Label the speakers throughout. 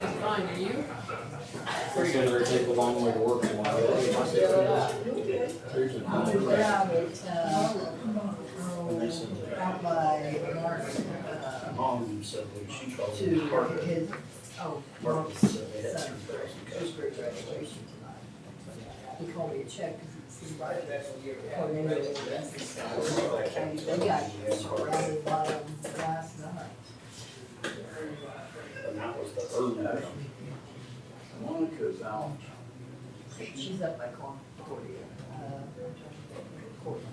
Speaker 1: fine, are you?
Speaker 2: It's gonna really take a long way to work tomorrow. There's a-
Speaker 3: Yeah, but, uh, out by Mark's, uh,
Speaker 4: Mom said when she called
Speaker 3: to
Speaker 4: me, Margaret,
Speaker 3: his, oh,
Speaker 4: Margaret
Speaker 3: Mark's
Speaker 4: said they had
Speaker 3: son,
Speaker 4: three thousand
Speaker 3: his
Speaker 4: customers.
Speaker 3: graduation tonight. He called me a check, cause it's his birthday. Or maybe it was his- and They got surrounded by them last night.
Speaker 4: And that was the early one.
Speaker 5: Monica's out.
Speaker 3: She's up by Concordia, uh, Concordia.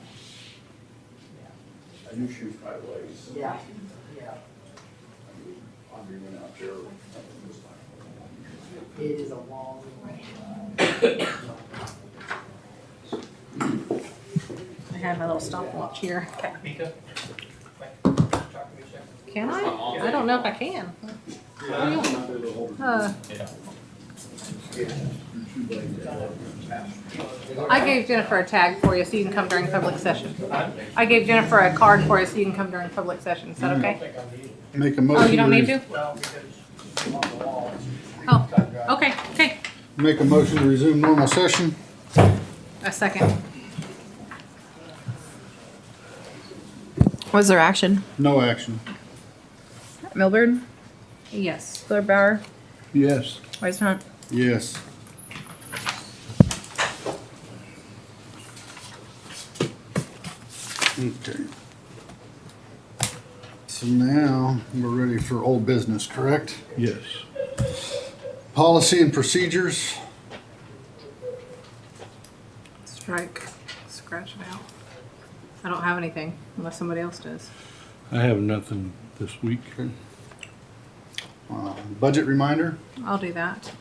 Speaker 5: I knew she was quite late. so
Speaker 3: Yeah, yeah,
Speaker 5: Audrey went out there. and was like,
Speaker 3: it is a long way.
Speaker 6: I have my little stopwatch here.
Speaker 7: Mika? Like, talk to me, check.
Speaker 6: Can I? I don't know if I can.
Speaker 5: Yeah, I'm not there to hold her.
Speaker 6: Uh,
Speaker 5: You're too late to help her.
Speaker 6: I gave Jennifer a tag for you so you can come during public session. I gave Jennifer a card for you so you can come during public session. Is that
Speaker 7: I
Speaker 6: okay?
Speaker 7: think I need it.
Speaker 8: Make a
Speaker 6: Oh, you don't need
Speaker 8: motion, to-
Speaker 7: Mm.
Speaker 6: to?
Speaker 7: Well, because it's on the wall.
Speaker 6: Oh, okay, okay.
Speaker 8: make a motion to resume normal session.
Speaker 6: A second.
Speaker 9: Was there action?
Speaker 8: No action.
Speaker 9: Milburn,
Speaker 6: Yes.
Speaker 9: Blair Bauer,
Speaker 8: Yes.
Speaker 9: Wise Hunt.
Speaker 8: Yes. Okay. So now, we're ready for old business, correct? Yes. Policy and procedures.
Speaker 6: Strike. Scratch it out. I don't have anything unless somebody else does.
Speaker 10: I have nothing this week.
Speaker 8: Uh, Budget reminder?
Speaker 6: I'll do that.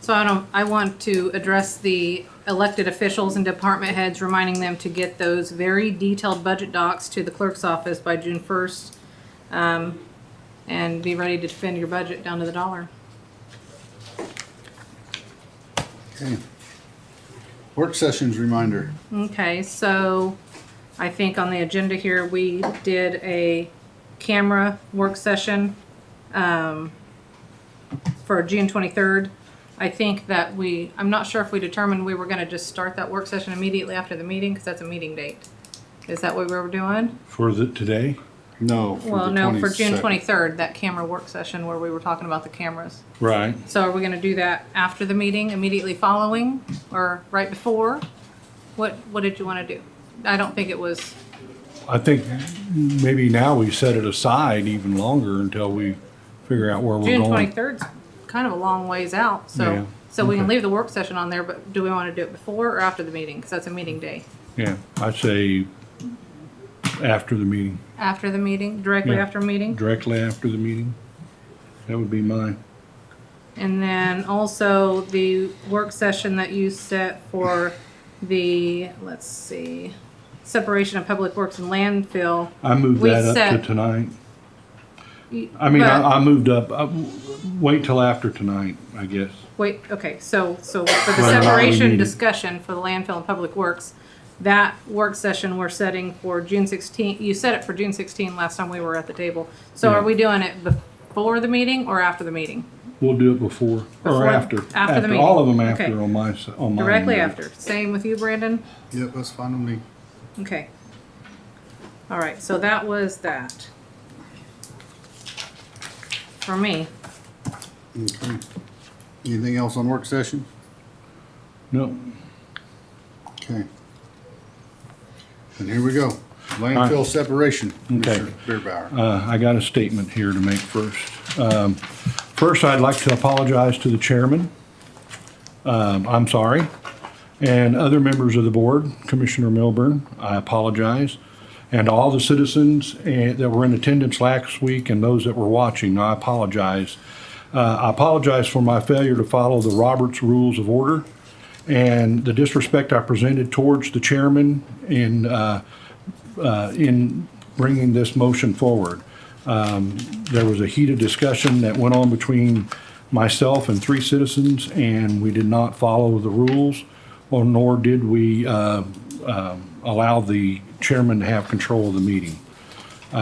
Speaker 6: So I don't, I want to address the elected officials and department heads, reminding them to get those very detailed budget docs to the clerk's office by June first. Um, and be ready to defend your budget down to the dollar.
Speaker 8: Okay. Work sessions reminder.
Speaker 6: Okay, so I think on the agenda here, we did a camera work session um, for June 23rd. I think that we, I'm not sure if we determined we were going to just start that work session immediately after the meeting because that's a meeting date. Is that what we were doing?
Speaker 10: For the, today?
Speaker 8: No. for
Speaker 6: Well,
Speaker 8: the
Speaker 6: no, for June
Speaker 8: 22nd.
Speaker 6: 23rd, that camera work session where we were talking about the cameras.
Speaker 10: Right.
Speaker 6: So are we going to do that after the meeting, immediately following, or right before? What, what did you want to do? I don't think it was,
Speaker 10: I think maybe now we set it aside even longer until we figure out where we're
Speaker 6: June
Speaker 10: going.
Speaker 6: twenty-third's kind of a long ways out, so,
Speaker 10: Yeah,
Speaker 6: so we can
Speaker 10: okay.
Speaker 6: leave the work session on there, but do we want to do it before or after the meeting? Because that's a meeting day.
Speaker 10: Yeah, I'd say after the meeting,
Speaker 6: After the meeting, directly
Speaker 10: Yeah.
Speaker 6: after meeting?
Speaker 10: directly after the meeting. That would be mine.
Speaker 6: And then also the work session that you set for the, let's see, separation of public works and landfill.
Speaker 10: I moved
Speaker 6: We
Speaker 10: that up
Speaker 6: set-
Speaker 10: to tonight.
Speaker 6: You-
Speaker 10: I mean,
Speaker 6: but-
Speaker 10: I, I moved up, I- wait till after tonight, I guess.
Speaker 6: Wait, okay, so, so for the
Speaker 10: Right, not
Speaker 6: separation
Speaker 10: needed.
Speaker 6: discussion for the landfill and public works, that work session we're setting for June sixteen, you set it for June sixteen last time we were at the table. So
Speaker 10: Yeah.
Speaker 6: are we doing it before the meeting or after the meeting?
Speaker 10: We'll do it before,
Speaker 6: Before-
Speaker 10: or after.
Speaker 6: after the meeting.
Speaker 10: All of them
Speaker 6: Okay.
Speaker 10: after on my, s- on my.
Speaker 6: Directly after. Same with you, Brandon?
Speaker 8: Yep, that's fine with me.
Speaker 6: Okay. All right, so that was that. For me.
Speaker 8: Okay. Anything else on work session?
Speaker 10: No,
Speaker 8: Okay. And here we go. Landfill separation,
Speaker 10: Okay.
Speaker 8: Mr. Beerbauer.
Speaker 10: Uh, I got a statement here to make first. Um, First, I'd like to apologize to the chairman. Um, I'm sorry. And other members of the board, Commissioner Milburn, I apologize. And all the citizens eh, that were in attendance last week and those that were watching, I apologize. Uh, I apologize for my failure to follow the Roberts Rules of Order and the disrespect I presented towards the chairman in uh, uh, in bringing this motion forward. Um, There was a heated discussion that went on between myself and three citizens, and we did not follow the rules, or nor did we uh, um, allow the chairman to have control of the meeting.